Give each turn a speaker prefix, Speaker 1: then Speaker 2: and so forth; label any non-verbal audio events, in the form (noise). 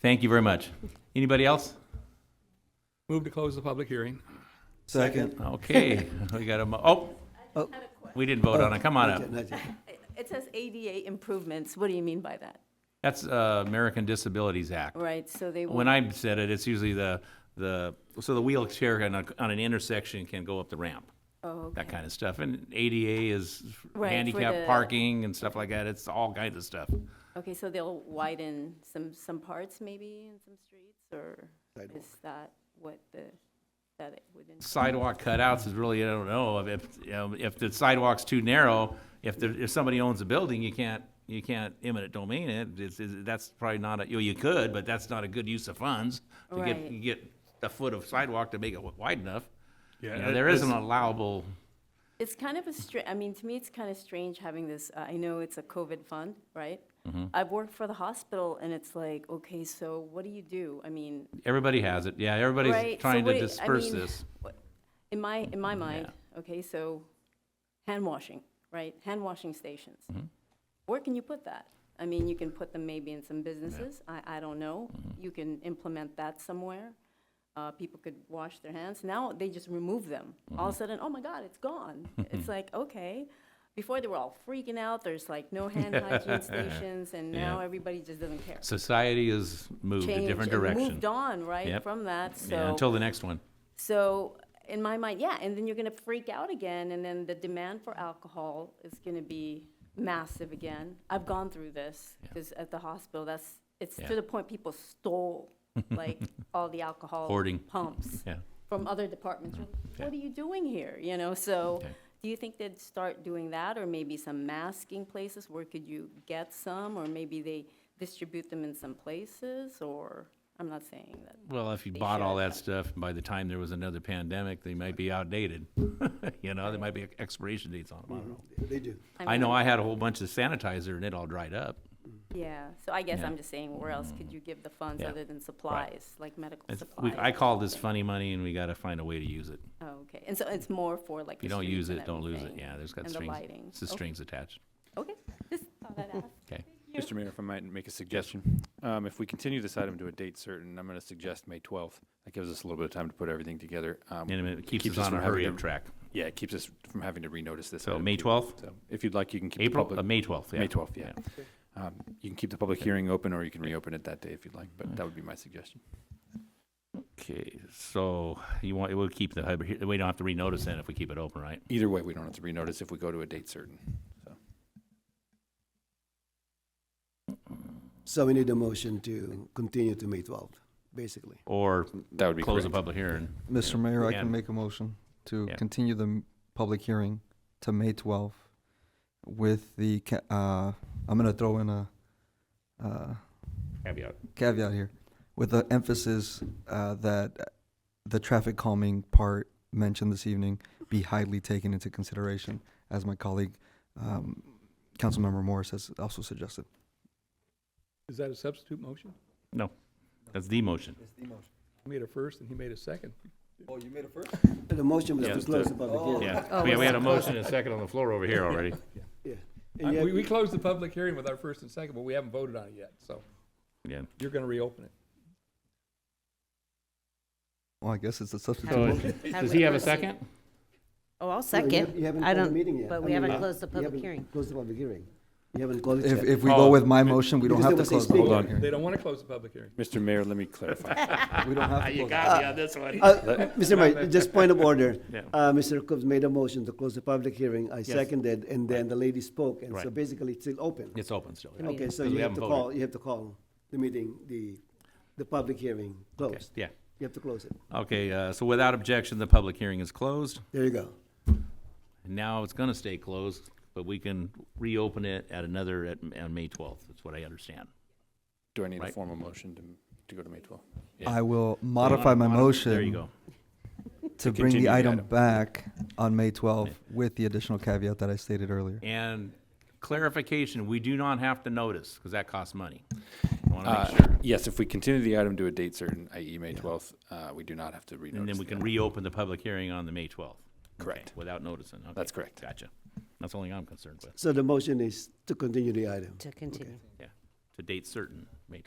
Speaker 1: Thank you very much. Anybody else?
Speaker 2: Move to close the public hearing.
Speaker 3: Second.
Speaker 1: Okay, (laughs) we got a, mo- oh,
Speaker 3: Oh,
Speaker 1: we didn't vote on
Speaker 4: Oh.
Speaker 1: it. Come on up.
Speaker 3: not yet, not yet.
Speaker 4: It says ADA improvements. What do you mean by that?
Speaker 1: That's uh, American Disabilities Act.
Speaker 4: Right, so they
Speaker 1: When
Speaker 4: would,
Speaker 1: I said it, it's usually the, the, so the wheelchair on a, on an intersection can go up the ramp,
Speaker 4: oh,
Speaker 1: that
Speaker 4: okay.
Speaker 1: kind of stuff. And ADA is
Speaker 4: Right, for
Speaker 1: handicap
Speaker 4: the-
Speaker 1: parking and stuff like that. It's all kinds of stuff.
Speaker 4: Okay, so they'll widen some, some parts maybe in some streets, or is that what the, that it would, in-
Speaker 1: sidewalk cutouts is really, I don't know, if, if, you know, if the sidewalk's too narrow, if there, if somebody owns a building, you can't, you can't eminent domain it, it's, it's, that's probably not, a- you know, you could, but that's not a good use of funds to get,
Speaker 4: Right.
Speaker 1: get a foot of sidewalk to make it wide enough. You know,
Speaker 2: it-
Speaker 1: there is an
Speaker 2: it's-
Speaker 1: allowable,
Speaker 4: it's kind of a str, I mean, to me, it's kind of strange having this, uh, I know it's a COVID fund, right?
Speaker 1: Mm-hmm.
Speaker 4: I've worked for the hospital, and it's like, okay, so what do you do? I mean,
Speaker 1: everybody has it, yeah,
Speaker 4: Right,
Speaker 1: everybody's
Speaker 4: so
Speaker 1: trying
Speaker 4: what
Speaker 1: to
Speaker 4: do you- I
Speaker 1: disperse
Speaker 4: mean-
Speaker 1: this.
Speaker 4: in my, in my mind, okay, so hand washing, right? Hand washing stations.
Speaker 1: Mm-hmm.
Speaker 4: Where can you put that? I mean, you can put them maybe in some businesses, I, I don't know.
Speaker 1: Mm-hmm.
Speaker 4: You can implement that somewhere. Uh, people could wash their hands. Now they just remove them. All
Speaker 1: Mm-hmm.
Speaker 4: of a sudden, oh my God,
Speaker 1: (laughs)
Speaker 4: it's gone. It's like, okay. Before they were all freaking out, there's like no hand
Speaker 1: (laughs)
Speaker 4: hygiene stations, and now
Speaker 1: Yeah.
Speaker 4: everybody just doesn't care.
Speaker 1: Society has moved a
Speaker 4: Changed
Speaker 1: different
Speaker 4: and
Speaker 1: direction,
Speaker 4: Moved on, right,
Speaker 1: Yep.
Speaker 4: from that, so.
Speaker 1: yeah, until the next one.
Speaker 4: So in my mind, yeah, and then you're going to freak out again, and then the demand for alcohol is going to be massive again. I've gone through this because at the hospital, that's it's
Speaker 1: Yeah.
Speaker 4: to the point people
Speaker 1: (laughs)
Speaker 4: stole like all the alcohol
Speaker 1: Hoarding.
Speaker 4: pumps
Speaker 1: Yeah.
Speaker 4: from other departments. What are you doing here? You know, so.
Speaker 1: Yeah.
Speaker 4: Do you think they'd start doing that, or maybe some masking places? Where could you get some, or maybe they distribute them in some places? Or I'm not saying that.
Speaker 1: Well, if you
Speaker 4: They
Speaker 1: bought all
Speaker 4: should.
Speaker 1: that stuff, by the time there was another pandemic, they might be outdated. (laughs) You know, there might be expiration dates on them, I don't know.
Speaker 3: They do.
Speaker 4: Mm-hmm.
Speaker 1: I know I had a whole bunch of sanitizer and it all dried up.
Speaker 4: Yeah, so I guess
Speaker 1: Yeah.
Speaker 4: I'm just saying, where else could you give the funds
Speaker 1: Yeah.
Speaker 4: other than supplies, like medical
Speaker 1: It's- we-
Speaker 4: supplies?
Speaker 1: I call this funny money and we gotta find a way to use it.
Speaker 4: Oh, okay, and so it's more for like
Speaker 1: If
Speaker 4: the
Speaker 1: you don't
Speaker 4: streets
Speaker 1: use
Speaker 4: and
Speaker 1: it, don't lose it.
Speaker 4: everything,
Speaker 1: Yeah, there's got
Speaker 4: And the
Speaker 1: strings,
Speaker 4: lighting.
Speaker 1: it's the
Speaker 4: Okay.
Speaker 1: strings attached.
Speaker 4: Okay, just thought I'd ask.
Speaker 1: Okay.
Speaker 5: Mr. Mayor, if I might make a suggestion, um, if we continue this item to a date certain, I'm going to suggest May 12th. That gives us a little bit of time to put everything together. Um,
Speaker 1: And it keeps
Speaker 5: keeps
Speaker 1: us
Speaker 5: us
Speaker 1: on a
Speaker 5: from having
Speaker 1: hurry
Speaker 5: to-
Speaker 1: up track.
Speaker 5: Yeah, it keeps us from having to renotice this.
Speaker 1: So
Speaker 5: item,
Speaker 1: May
Speaker 5: too.
Speaker 1: 12th?
Speaker 5: So if you'd like, you can keep the
Speaker 1: April,
Speaker 5: public-
Speaker 1: uh, May twelfth, yeah.
Speaker 5: May 12th, yeah. Um, You can keep the public hearing open, or you can reopen it that day if you'd like, but that would be my suggestion.
Speaker 1: Okay, so you want, we'll keep the, hybrid- we don't have to renotice then if we keep it open, right?
Speaker 5: Either way, we don't have to renotice if we go to a date certain. So
Speaker 3: So we need a motion to continue to May 12th, basically.
Speaker 1: Or
Speaker 5: That would be
Speaker 1: close the
Speaker 5: correct.
Speaker 1: public hearing.
Speaker 6: Mr. Mayor, I can
Speaker 1: And-
Speaker 6: make a motion to
Speaker 1: Yeah.
Speaker 6: continue the m- public hearing to May 12th with the, ca- uh, I'm going to throw in a uh,
Speaker 1: Caveat.
Speaker 6: caveat here, with the emphasis uh, that the traffic calming part mentioned this evening be highly taken into consideration, as my colleague, um, Councilmember Morris has also suggested.
Speaker 2: Is that a substitute motion?
Speaker 1: That's the motion.
Speaker 2: I made a first and he made a second.
Speaker 6: Oh, you made it first?
Speaker 3: The motion was
Speaker 1: Yeah,
Speaker 3: to
Speaker 1: it's
Speaker 3: close
Speaker 1: the-
Speaker 3: the public hearing.
Speaker 1: Yeah,
Speaker 4: Oh,
Speaker 1: we, we had a
Speaker 4: it's-
Speaker 1: motion and a second on the floor over here already.
Speaker 3: Yeah.
Speaker 2: I-
Speaker 3: And
Speaker 2: We, we
Speaker 3: yet,
Speaker 2: closed the public hearing with our first and second, but we haven't voted on it yet, so
Speaker 1: Yeah.
Speaker 2: you're gonna reopen it.
Speaker 6: Well, I guess it's a substitute.
Speaker 1: So,
Speaker 6: motion.
Speaker 1: does he have a second?
Speaker 7: Oh, I'll
Speaker 3: no, you
Speaker 7: second.
Speaker 3: have- you haven't
Speaker 7: I
Speaker 3: called the
Speaker 7: don't-
Speaker 3: meeting yet.
Speaker 7: but
Speaker 3: I
Speaker 7: we
Speaker 3: mean,
Speaker 7: haven't
Speaker 3: uh,
Speaker 7: closed the
Speaker 3: you
Speaker 7: public
Speaker 3: haven't
Speaker 7: hearing.
Speaker 3: Closed the public hearing. You haven't called it
Speaker 6: If,
Speaker 3: yet.
Speaker 6: if we
Speaker 1: Oh.
Speaker 6: go with my motion, we don't
Speaker 3: Because
Speaker 6: have
Speaker 3: it
Speaker 6: to
Speaker 3: was
Speaker 6: close the
Speaker 3: explained.
Speaker 6: public
Speaker 2: They
Speaker 6: hearing.
Speaker 2: don't wanna close the public hearing.
Speaker 5: Mr. Mayor, let
Speaker 1: (laughs)
Speaker 5: me clarify.
Speaker 6: We don't have to
Speaker 1: Ah, You
Speaker 6: close.
Speaker 1: got me on this one.
Speaker 3: Uh, Mr. Mayor, just point of order.
Speaker 1: (laughs) Yeah.
Speaker 3: Uh, Mr. Coombs made a motion to close the public hearing. I seconded, and then the lady spoke, and so
Speaker 1: Right.
Speaker 3: basically it's still open.
Speaker 1: It's open still. yeah.
Speaker 3: Okay,
Speaker 1: Because
Speaker 3: so
Speaker 1: we
Speaker 3: you have
Speaker 1: haven't
Speaker 3: to
Speaker 1: voted.
Speaker 3: call, you have to call the meeting, the, the public hearing closed.
Speaker 1: Yeah.
Speaker 3: You have to close it.
Speaker 1: Okay, uh, so without objection, the public hearing is closed.
Speaker 3: There you go.
Speaker 1: Now it's gonna stay closed, but we can reopen it at another, at, on May twelfth, that's what I understand.
Speaker 5: Do I need a
Speaker 1: Right.
Speaker 5: formal motion to, to go to May 12th?
Speaker 6: I will modify my
Speaker 1: Modif-
Speaker 6: motion.
Speaker 1: There you go.
Speaker 6: to bring
Speaker 5: continue
Speaker 6: the
Speaker 5: the
Speaker 6: item
Speaker 5: item.
Speaker 6: back on May 12th with the additional caveat that I stated earlier.
Speaker 1: And clarification, we do not have to notice, because that costs money. I wanna
Speaker 5: Uh,
Speaker 1: make sure.
Speaker 5: Yes, if we continue the item to a date certain, i.e. May 12th, uh, we do not have to renotice.
Speaker 1: And then we
Speaker 5: the
Speaker 1: can
Speaker 5: item.
Speaker 1: reopen the public hearing on the May twelfth.
Speaker 5: Correct.
Speaker 1: Without noticing, okay.
Speaker 5: That's correct.
Speaker 1: Gotcha. That's the only I'm concerned with.
Speaker 3: So the motion is to continue the item.
Speaker 7: To continue.
Speaker 1: Yeah. to date certain, May